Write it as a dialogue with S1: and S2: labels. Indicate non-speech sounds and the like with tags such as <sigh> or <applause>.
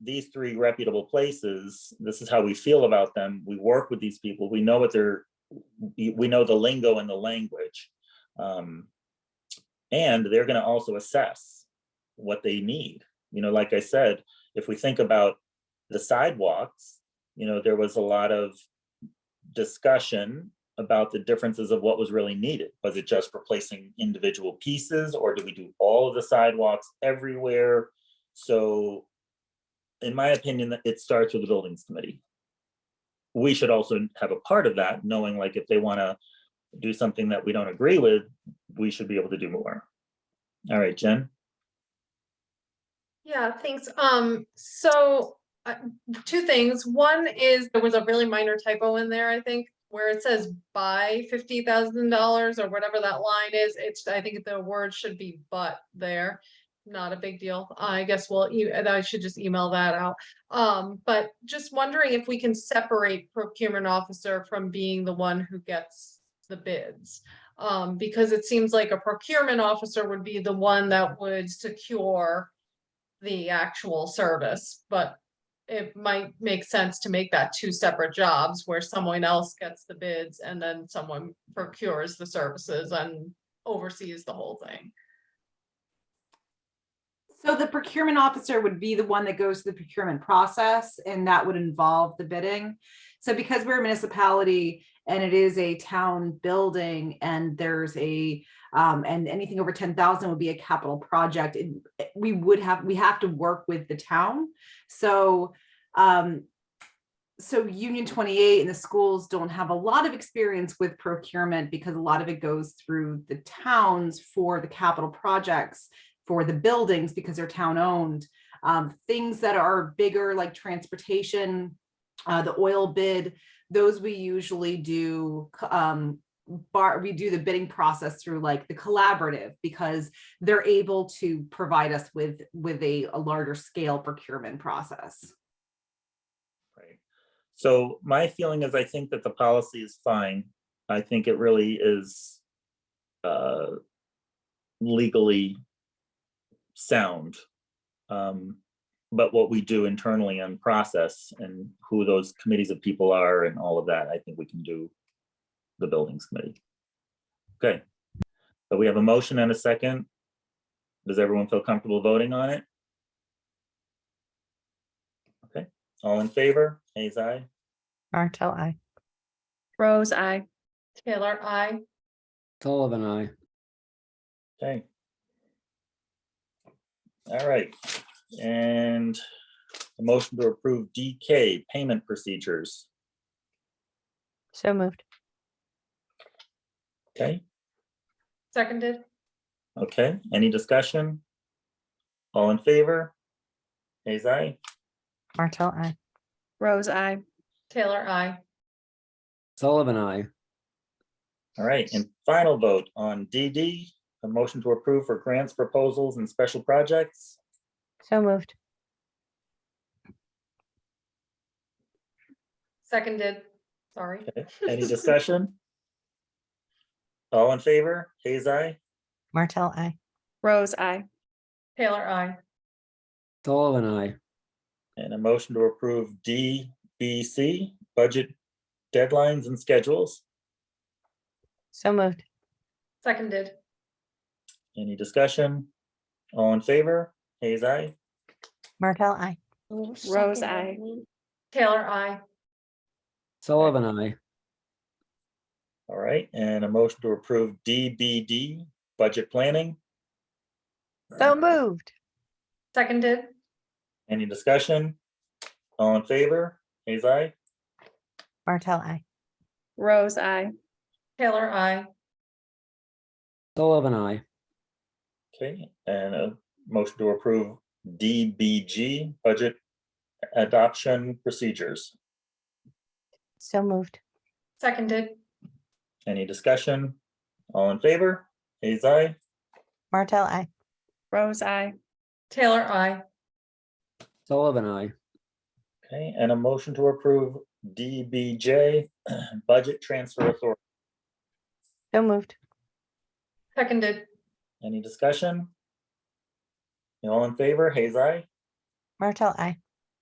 S1: these three reputable places, this is how we feel about them. We work with these people. We know what they're, we we know the lingo and the language. Um, and they're going to also assess what they need. You know, like I said, if we think about the sidewalks, you know, there was a lot of discussion about the differences of what was really needed. Was it just replacing individual pieces or do we do all of the sidewalks everywhere? So in my opinion, that it starts with the buildings committee. We should also have a part of that, knowing like if they want to do something that we don't agree with, we should be able to do more. All right, Jen?
S2: Yeah, thanks. Um, so, uh, two things. One is there was a really minor typo in there, I think, where it says buy fifty thousand dollars or whatever that line is. It's, I think the word should be but there. Not a big deal. I guess we'll, e- and I should just email that out. Um, but just wondering if we can separate procurement officer from being the one who gets the bids. Um, because it seems like a procurement officer would be the one that would secure the actual service, but it might make sense to make that two separate jobs where someone else gets the bids and then someone procures the services and oversees the whole thing.
S3: So the procurement officer would be the one that goes through the procurement process and that would involve the bidding. So because we're a municipality and it is a town building and there's a, um, and anything over ten thousand would be a capital project. it- We would have, we have to work with the town. So, um, so Union twenty-eight and the schools don't have a lot of experience with procurement because a lot of it goes through the towns for the capital projects for the buildings because they're town owned. Um, things that are bigger like transportation, uh, the oil bid, those we usually do, c- um, bar, we do the bidding process through like the collaborative because they're able to provide us with, with a, a larger scale procurement process.
S1: Right. So my feeling is I think that the policy is fine. I think it really is uh, legally sound. Um, But what we do internally on process and who those committees of people are and all of that, I think we can do the buildings committee. Okay. So we have a motion and a second. Does everyone feel comfortable voting on it? All in favor? Hayes, aye.
S4: Martel, I.
S5: Rose, I.
S2: Taylor, I,
S6: Sullivan, I.
S1: Okay. All right, and a motion to approve DK payment procedures.
S4: So moved.
S1: Okay,
S2: seconded,
S1: okay, any discussion? All in favor? Hayes, aye.
S4: Martel, I.
S5: Rose, I.
S2: Taylor, I,
S6: Sullivan, I.
S1: All right, and final vote on DD, a motion to approve for grants, proposals, and special projects.
S4: So moved.
S2: seconded, sorry. <laughs>
S1: Any discussion? All in favor? Hayes, aye.
S4: Martel, I.
S5: Rose, I.
S2: Taylor, I,
S6: Sullivan, I.
S1: And a motion to approve DBC, budget deadlines and schedules.
S4: So moved.
S2: seconded,
S1: Any discussion? All in favor? Hayes, aye.
S4: Martel, I.
S5: Rose, I.
S2: Taylor, I,
S6: Sullivan, I.
S1: All right, and a motion to approve DBD, budget planning.
S4: So moved.
S2: seconded,
S1: Any discussion? All in favor? Hayes, aye.
S4: Martel, I.
S5: Rose, I.
S2: Taylor, I,
S6: Sullivan, I.
S1: Okay, and a motion to approve DBG, budget adoption procedures.
S4: So moved.
S2: seconded,
S1: Any discussion? All in favor? Hayes, aye.
S4: Martel, I.
S5: Rose, I.
S2: Taylor, I,
S6: Sullivan, I.
S1: Okay, and a motion to approve DBJ, <clears throat> budget transfer authority.
S4: So moved.
S2: seconded,
S1: Any discussion? All in favor? Hayes, aye.
S4: Martel, I.